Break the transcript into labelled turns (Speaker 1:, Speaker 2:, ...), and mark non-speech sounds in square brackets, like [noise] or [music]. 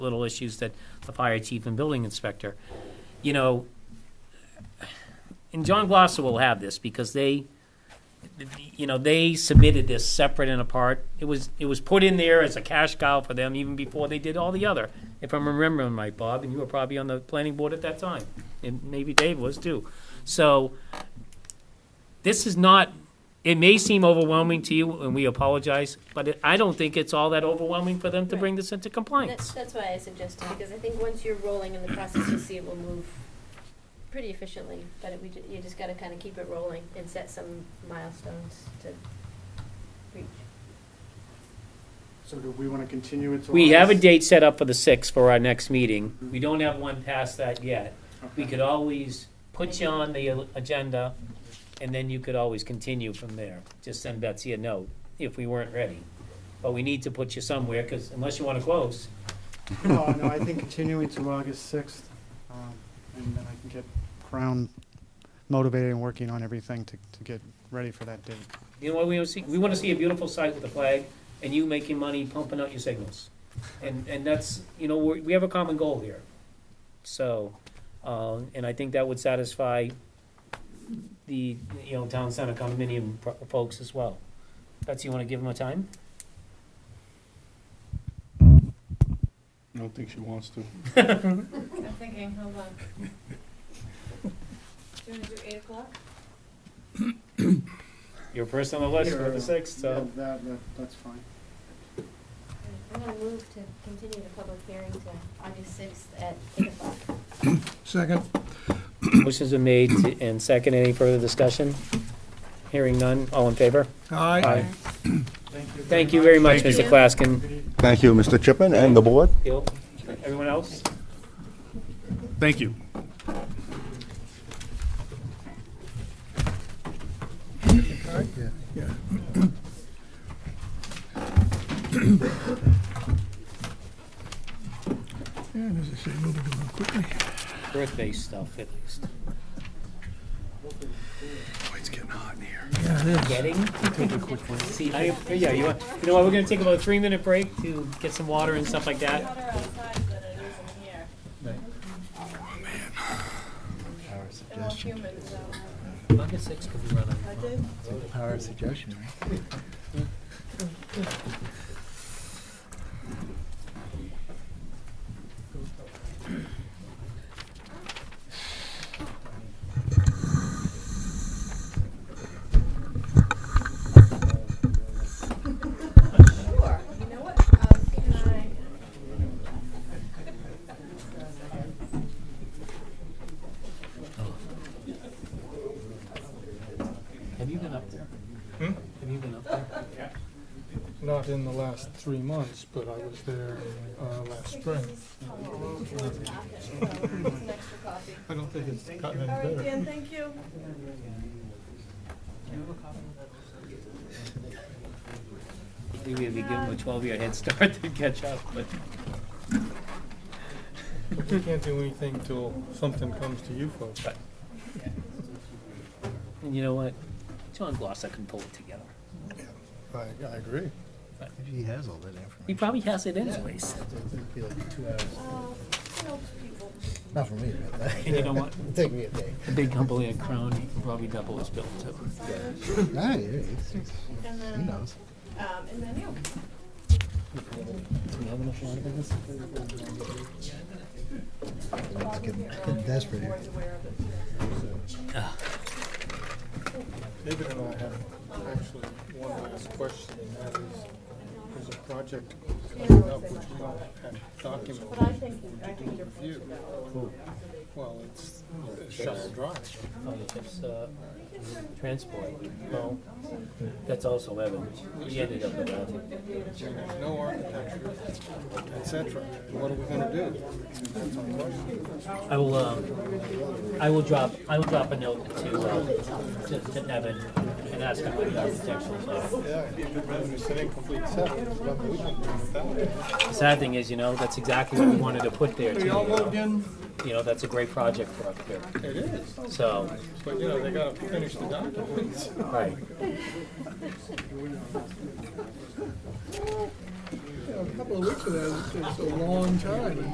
Speaker 1: little issues that the fire chief and building inspector, you know, and John Glosser will have this because they, you know, they submitted this separate and apart. It was, it was put in there as a cash cow for them even before they did all the other, if I'm remembering right, Bob, and you were probably on the planning board at that time, and maybe Dave was too. So this is not, it may seem overwhelming to you, and we apologize, but it- I don't think it's all that overwhelming for them to bring this into
Speaker 2: That's,
Speaker 1: compliance.
Speaker 2: that's why I suggested, because I think once you're rolling in the process, you'll see it will move pretty efficiently, but it, we, ju- you just gotta kinda keep it rolling and set some milestones to reach.
Speaker 3: So do we want to continue it to?
Speaker 1: We have a
Speaker 3: August?
Speaker 1: date set up for the sixth for our next meeting. We don't have one past that yet. We
Speaker 3: Okay.
Speaker 1: could always put you on the agenda, and then you could always continue from there. Just send Betsy a note if we weren't ready. But we need to put you somewhere, because unless you want to close.
Speaker 3: No, no, I think continuing to August sixth, um, and then I can get Crown motivated and working on everything to, to get ready for that date.
Speaker 1: You know what we want to see? We want to see a beautiful site with a flag, and you making money pumping out your signals. And, and that's, you know, we we have a common goal here. So, um, and I think that would satisfy the, you know, town center condominium pro- folks as well. Betsy, you want to give them a time? [laughs]
Speaker 4: I don't think she wants to.
Speaker 5: I'm thinking, hold on. Do you want to do eight o'clock?
Speaker 1: You're first on the list for the sixth, so.
Speaker 3: Yeah, That, that, that's fine.
Speaker 2: I'm gonna move to continue the public hearing to August sixth at eight o'clock.
Speaker 6: Second,
Speaker 1: Motion's been made to- and second. Any further discussion? Hearing none. All in favor?
Speaker 6: aye.
Speaker 3: Thank you.
Speaker 1: Thank you very much, Mr. Claskin.
Speaker 3: Good evening.
Speaker 7: Thank you, Mr. Chipman and the board.
Speaker 1: Bill, everyone else?
Speaker 4: Thank you.
Speaker 6: Yeah. And as I say, moving along quickly.
Speaker 1: Earth-based stuff, at least.
Speaker 6: Boy, Oh, it's getting hot in here. Yeah, it is.
Speaker 1: Getting? See, I, yeah, you, want- you know what, we're gonna take about a three-minute break to get some water and stuff like that.
Speaker 5: Hotter outside than it is in here. Oh, They're all humid, so.
Speaker 1: August sixth could be running.
Speaker 5: I did.
Speaker 6: Power of suggestion, right?
Speaker 5: Sure, you know what? Um, can I?
Speaker 1: Have you been up there?
Speaker 6: Hmm?
Speaker 1: Have you been up there?
Speaker 8: Not in the last three months, but I was there uh, last spring.
Speaker 5: It's an extra coffee.
Speaker 8: I don't think it's gotten
Speaker 5: All
Speaker 8: any
Speaker 5: right,
Speaker 8: better.
Speaker 5: Dan, thank you.
Speaker 1: I think we'd be giving them a twelve-year head start to catch up, but
Speaker 8: But We can't do anything till something comes to you folks.
Speaker 1: and you know what? John Glosser can pull it together.
Speaker 8: I, I agree.
Speaker 6: He has all that
Speaker 1: He
Speaker 6: information.
Speaker 1: probably has it anyways.
Speaker 6: It'd be like two hours.
Speaker 5: Oh, you know, people.
Speaker 6: Not for me, but
Speaker 1: And you know what?
Speaker 6: it'd [laughs] take me a day.
Speaker 1: A big company at Crown, he can probably double his bill too.
Speaker 6: Nah, yeah, it's- it's-
Speaker 5: And
Speaker 6: he
Speaker 5: then,
Speaker 6: knows.
Speaker 5: um, and then you.
Speaker 6: It's getting getting desperate here.
Speaker 8: David and I have actually one last question, and that is, there's a project coming up which we don't have
Speaker 5: But I
Speaker 8: documented
Speaker 5: think, I think you're free to
Speaker 8: review.
Speaker 5: go.
Speaker 8: Well, it's Shire Drive.
Speaker 1: Oh, it's, uh, transport.
Speaker 8: No,
Speaker 1: That's also Evan. We ended up with that.
Speaker 8: there's no architecture, et cetera. What are we gonna do? That's our question.
Speaker 1: I will, um, I will drop, I will drop a note to, uh, to, to Evan and ask him what the architectural is.
Speaker 8: Yeah, it's an incomplete set. There's nothing we can do without it.
Speaker 1: The sad thing is, you know, that's exactly what we wanted to put there too. You know? You know, that's a great project for up here,
Speaker 8: It is,
Speaker 1: so,
Speaker 8: but you know, they gotta finish the documents.
Speaker 1: right.
Speaker 6: you know, a couple of weeks ago, it's a long time.